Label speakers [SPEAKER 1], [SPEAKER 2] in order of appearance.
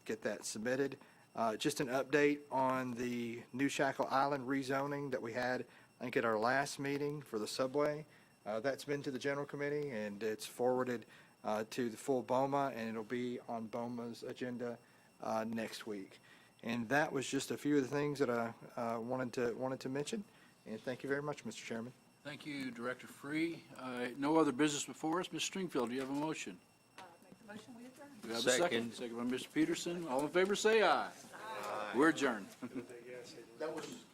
[SPEAKER 1] get that submitted. Uh, Just an update on the New Shackle Island rezoning that we had, I think, at our last meeting for the subway. Uh, That's been to the general committee, and it's forwarded uh, to the full BOMA, and it'll be on BOMA's agenda uh, next week. And that was just a few of the things that I uh, wanted to, wanted to mention, and thank you very much, Mr. Chairman.
[SPEAKER 2] Thank you, Director Free. Uh, No other business before us. Ms. Stringfield, do you have a motion? Uh, Make the motion, we adjourn. Do you have a second? Second by Mr. Peterson. All in favor, say aye. We're adjourned.